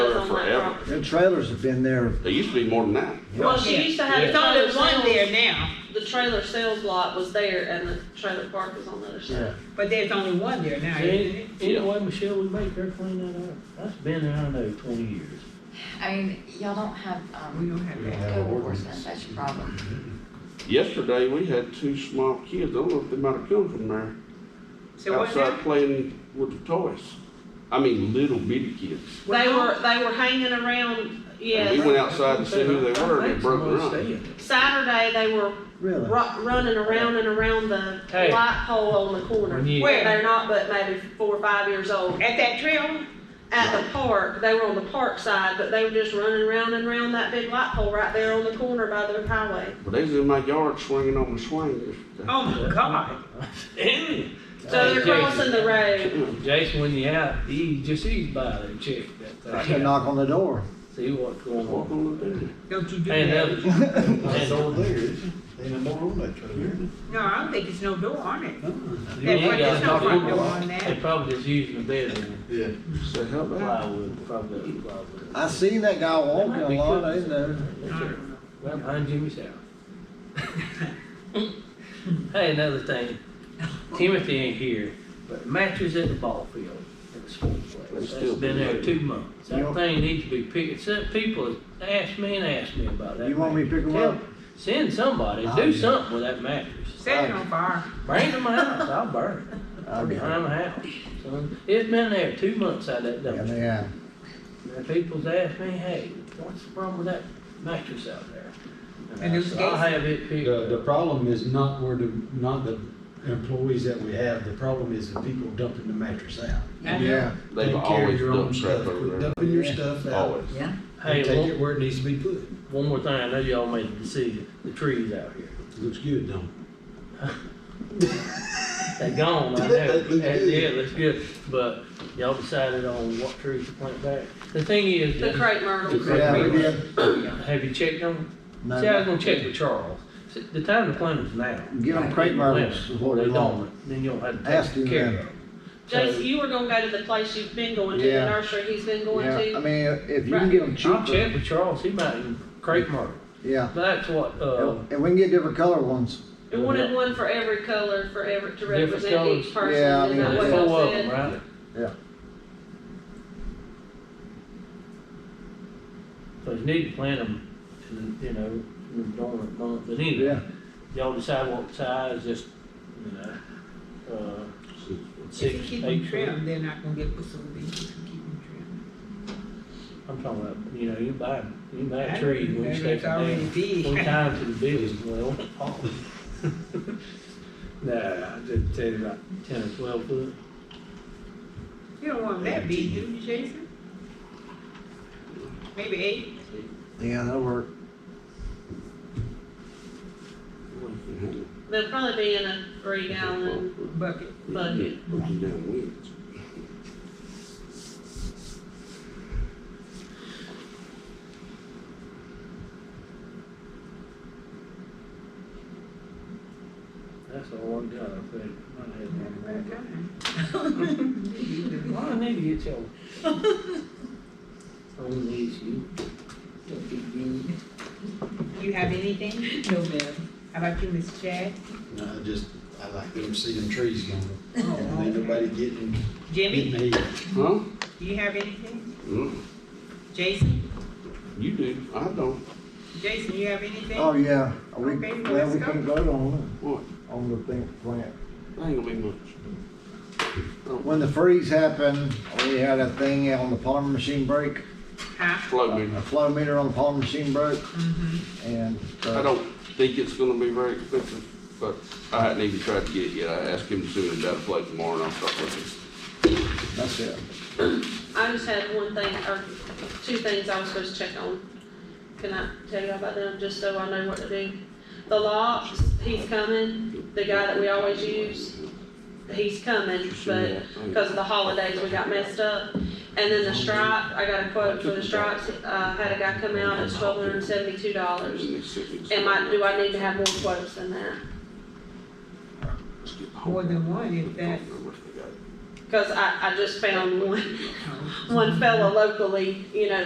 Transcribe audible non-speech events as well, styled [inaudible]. trailers. Them trailers have been there. There used to be more than that. Well, she used to have There's the only trailer one sales, there now, the trailer sales lot was there and the trailer park was on the other side. but there's only one there now, isn't it? Any- Anyway, Michelle, we make her clean that up. That's been, I don't know, twenty years. I mean, y'all don't have, We um, don't have that. code enforcement, that's your problem. Yesterday, we had two small kids, I don't know if they might have come from there, So what outside now? playing with the toys. I mean, little bitty kids. They were, they were hanging around, And we yeah, went outside to see who they were, and they broke Somebody's their arm. staying. Saturday, they were Really? ru- running around and around the Hey. light pole on the corner. When you- Where they're not but maybe four or five years old. At that trail, At the park, they were on the park side, but they were just running around and around that big light pole right there on the corner by the highway. But they was in my yard swinging on the swing yesterday. oh my [laughs] God, Anyway, So they're Jason. crossing the road. Jason, when you out, you just eat by there and check that I can thing. out. knock on the door. See what's going Walk on. on the dude. don't you do [laughs] And that. others. That's all there is. Ain't no more on that trailer. No, I don't think it's no door on it. You That ain't front, there's no got front no door door. on They that. probably just using the bed Yeah. Say, how and about? plywood, probably plywood. I seen that guy walking a lot, ain't there? I don't know. Right behind Jimmy's house. [laughs] Hey, another thing, Timothy ain't here, but matches at the ball field, at the sports place, It's that's still been there been two months. You That want- thing needs to be picked, some people ask me and ask me about that. You want me to mattress. pick 'em up? Tell- Send somebody, Oh, do yeah. something with that mattress, Set it on fire. bring it to my house, I'll burn [laughs] it, I mean, behind the house, son. It's been there two months out of that Yeah, dumpster. they have. And people's asked me, hey, what's the problem with that mattress out there? And I it's said, I'll gas- have it picked The, up. the problem is not where the, not the employees that we have, the problem is the people dumping the mattress out. I know. Yeah. They've You always carry your own done crap stuff. over Quit there. Dumping your Yeah. stuff out Always. Yeah. and Hey, take one, it where it needs to be put. one more thing, I know y'all made the decision, the trees out here, Looks good, don't it? they gone, I know, That looks yeah, good. it looks good, but y'all decided on what trees to plant back. The thing is, The crepe myrtle. Yeah, we did. have you checked on, see, I was No, gonna check with Charles, See, the time to plant is now. Get 'em crepe myrtles, is what They we want. don't, then you'll have Ask to him take care of then. them. Jason, you were gonna go to the place you've been going to, the Yeah. nursery he's been going yeah, I to. mean, if you can get them I'll cheaper, check with Charles, he might even crepe myrtle. yeah. That's what, uh, And and we can get different color ones. We wanted one for every color, for every, to Different represent each colors. person, Yeah, I is mean, that there's what yeah. four y'all of them, said? right? Yeah. So you need to plant them, in, you know, in the dormant month, but Yeah. anyway, y'all decide what size, just, you know, uh, If six, you keep eight them foot. trimmed, they're not gonna get put so big, if you keep them trimmed. I'm talking about, you know, you buy, you buy I a tree, know, when you it's stake it already down, big. [laughs] one time to the biggest, well, oh. Nah, I just tell you about ten or twelve foot, You don't want that big, do you, Jason? Maybe eight? Yeah, that'll work. They'll probably be in a three gallon bucket. bucket. that's all I got, I think. I had one more. Well, Well, I need to get y'all. On these, you. Don't be mean. You have anything? [laughs] No, ma'am. How about you, Miss Chad? No, I just, I like them seeing trees going, Oh, ain't nobody getting, Jimmy, getting hit. Huh? do you have anything? Mm, Jason, You do, I don't. Jason, you have anything? Oh, yeah. We, Okay, well, let's we go. couldn't vote on What? it, on the thing, plant. That ain't gonna be much. When the freeze happened, we had a thing on the polymer machine break, Huh? Mm-hmm. Float me. a flow meter on the polymer machine broke, and. uh, I don't think it's gonna be very expensive, but I hadn't even tried to get it yet. I asked him soon about a float tomorrow and I'll start looking. That's it. I just had one thing, or two things I was supposed to check on. Can I tell you about them, just so I know what to do? The locks, he's coming, the guy that we always use, he's coming, but because of the holidays, we got messed up. And then the stripe, I got a quote for the stripes, uh, had a guy come out, it's twelve hundred and seventy-two dollars. Am I, do I need to have more quotes than that? More than one, if that's. that. Cause I, I just found one, one fella locally, you know,